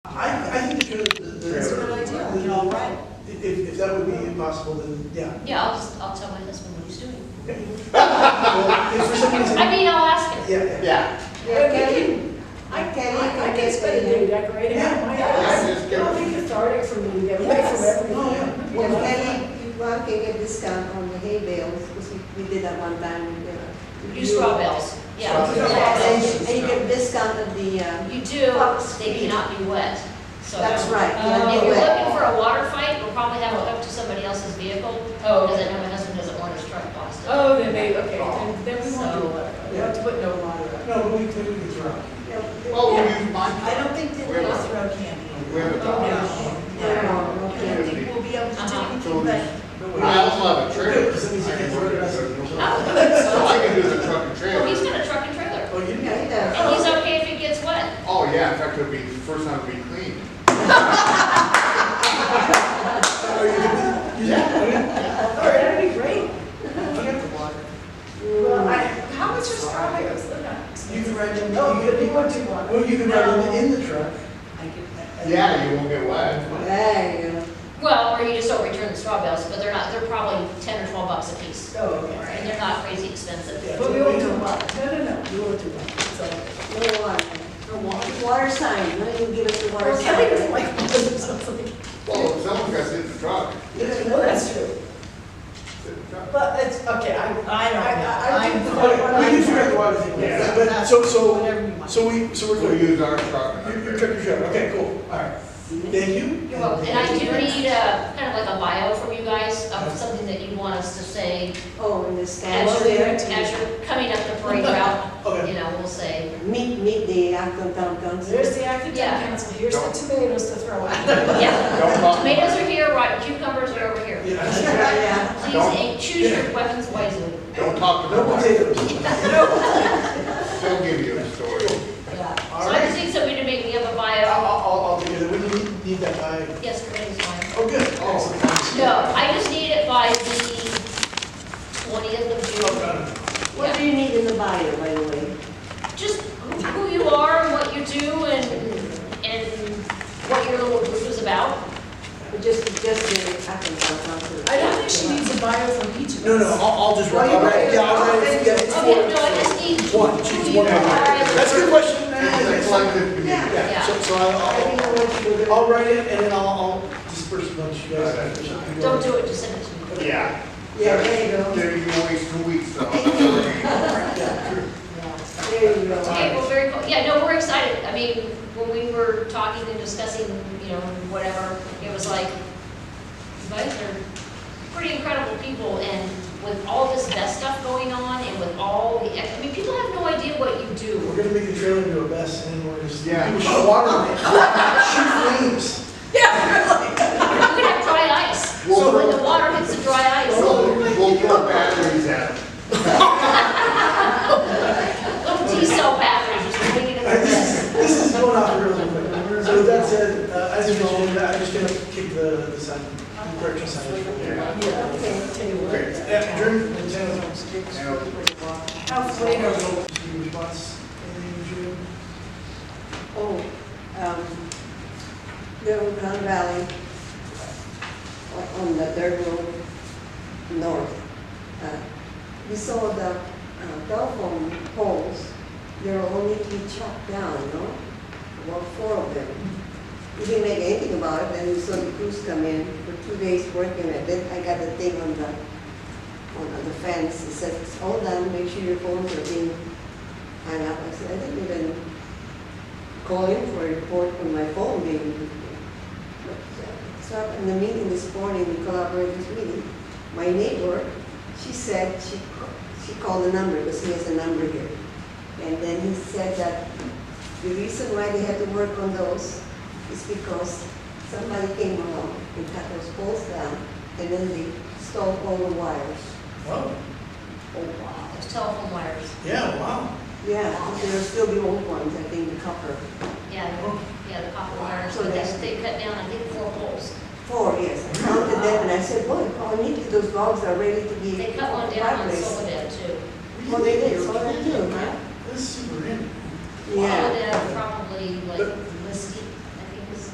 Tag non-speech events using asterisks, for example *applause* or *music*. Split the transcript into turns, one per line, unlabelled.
That's a good idea.
You know, right,
If, if that would be impossible, then, yeah.
Yeah, I'll just, I'll tell my husband what he's doing.
Well, If for some reason,
I mean, I'll ask him.
yeah, yeah.
Yeah,
Yeah,
Kelly.
I can,
I think it's better than decorating
Yeah,
my
yeah,
house.
I
You
just get-
don't think it's already for me to get away from
Yes.
everything.
Oh, yeah.
You know?
Kelly, you want to get a discount on the hay bales, because we, we did that one time. with the-
You straw bales, yeah.
Straw bales.
And you- and you get a discount of the, um,
You do, they cannot be wet, so.
That's right, they cannot
Um,
be
If you're
wet.
looking for a water fight, we'll probably have it hooked to somebody else's vehicle,
Oh.
because I know my husband doesn't want his truck busted.
Oh, then they, okay, then, then we won't do a letter. We
Yeah.
uh, have to put no letter up.
no, but we could, we could try.
you know, the-
Well,
Oh.
Yeah.
I don't think that
Where
they'll
was it?
throw candy.
We have a
Oh,
No, no,
No, no, no
I don't
candy.
think we'll be able to do
Uh-huh.
anything, but
No way.
I also have a trailer.
For some reason,
I
you
can
can't throw
work it
it
as a-
I
All
don't think so.
I can do is a truck
Well,
and
he's
trailer.
got a truck and trailer,
Oh, you didn't?
Yeah, he does.
and he's okay if it gets wet.
Oh, yeah, in fact, it'll be the first time it'll be clean.
Oh, you didn't? You didn't?
that'd be great.
Well, I, how much are strawberries? They're not
You
expensive.
can ride them,
Oh,
you
you
can,
want to one.
well, you can ride them in the truck.
I get that.
Yeah, you won't get wet.
There you go.
Well, or you just don't return the straw bales, but they're not, they're probably ten or twelve bucks a piece.
Oh, okay.
And they're not crazy expensive.
Yeah.
But we won't do a letter. No, no, no, we won't do a letter. It's all right.
No water. Water sign, why don't you give us the water
Or
sign?
Kelly doesn't like *laughs* letters. I was like,
Well, if someone's got to sit in the truck.
No, that's true.
Sit in the truck.
But it's, okay, I,
I don't know.
I, I, I do the
I'm-
But
letter.
Oh, We can figure out the water thing,
Yeah.
but, so, so,
Whatever you want.
so we, so we're
We'll
good.
use our truck. and our
You, you
trailer.
took your shot, okay, cool, all right. Thank you.
You're welcome. And I do need a, kind of like a bio from you guys, of something that you want us to say.
Oh, and the
As
statue
you're,
there.
as you're coming up the parade route,
Okay.
you know, we'll say,
Meet, meet the Acton Town Council.
There's the active town
Yeah.
council, here's the tomatoes to throw out.
yeah,
Don't bump.
tomatoes are here, right, cucumbers are over here.
Yeah.
*laughs* Yeah,
Please,
Don't-
eh, choose your weapons wisely.
Don't talk to
No
nobody.
potatoes.
They'll give you a story.
Yeah. So I just need somebody to make me up a
I'll,
bio.
I'll, I'll do that, we need, need that by,
Yes, committee's fine.
oh, good, excellent.
No, I just need it by the twentieth of June.
what do you need in the bio, by the way?
Just who you are and what you do and, and what your little group is about.
Just, just the Acton Town Council.
I don't think she needs a bio from each of us.
No, no, I'll, I'll just write, I'll write, yeah, I'll write, it, yeah, it's
Okay,
four.
no, I just need
One,
who
choose
you
one.
are and
That's a good question.
It's a collective community.
Yeah, so, so
I
I'll,
think I want you to do
I'll-
Oh,
I'll write it and then I'll, I'll disperse it amongst you guys.
Don't do it, just send it to me.
Yeah.
Yeah, there you go.
There you waste two weeks, though. That's all right.
There you go.
Okay, well, very cool. Yeah, no, we're excited. I mean, when we were talking and discussing, you know, whatever, it was like, you guys are pretty incredible people, and with all this best stuff going on, and with all the, ex- I mean, people have no idea what you
We're
do.
gonna make the trailer into a mess and then we're just,
Yeah.
people shoot water, on it. shoot flames.
We're gonna have dry ice.
*laughs* We'll
So when
throw-
the water hits the dry ice,
We'll, we'll throw batteries at them.
little T-cell batteries, just putting it
*laughs*
in the mess.
This is going off really quick. So with that said, uh, as usual, I'm just gonna kick the, the sign, the correction sign.
Yeah, okay, tell you what.
Okay.
Yeah, Drew, the channel,
Now,
How flavorful.
your uh, response, anything, Drew?
Oh, um, Little Crown Valley, o- on the third road north. Uh, We saw the uh, telephone poles, they were only to be chopped down, no? About four of them. We didn't make anything about it, then we saw the crews come in for two days working it. Then I got the thing on the, on the fence, it said, it's all done, make sure your phones are being hung up. I said, I didn't even calling for a report on my phone being. So in the meeting this morning, the collaborators meeting, my neighbor, she said, she, ca- she called the number, because he has a number here. And then he said that the reason why they had to work on those is because somebody came along and cut those poles down, and then they stole all the wires.
Wow,
Oh, wow.
There's telephone wires.
yeah, wow.
Yeah, there'll still be old ones, I think, the copper.
Yeah, yeah, the copper wires, but that's, they cut down, I think, four poles.
Four, yes. I counted them and I said, boy, how neat those logs are ready to be.
They cut one down on
fireplace."
Soledad too.
Well, they did, so I do, huh?
That's super in.
Soledad
Yeah.
uh, probably like
But-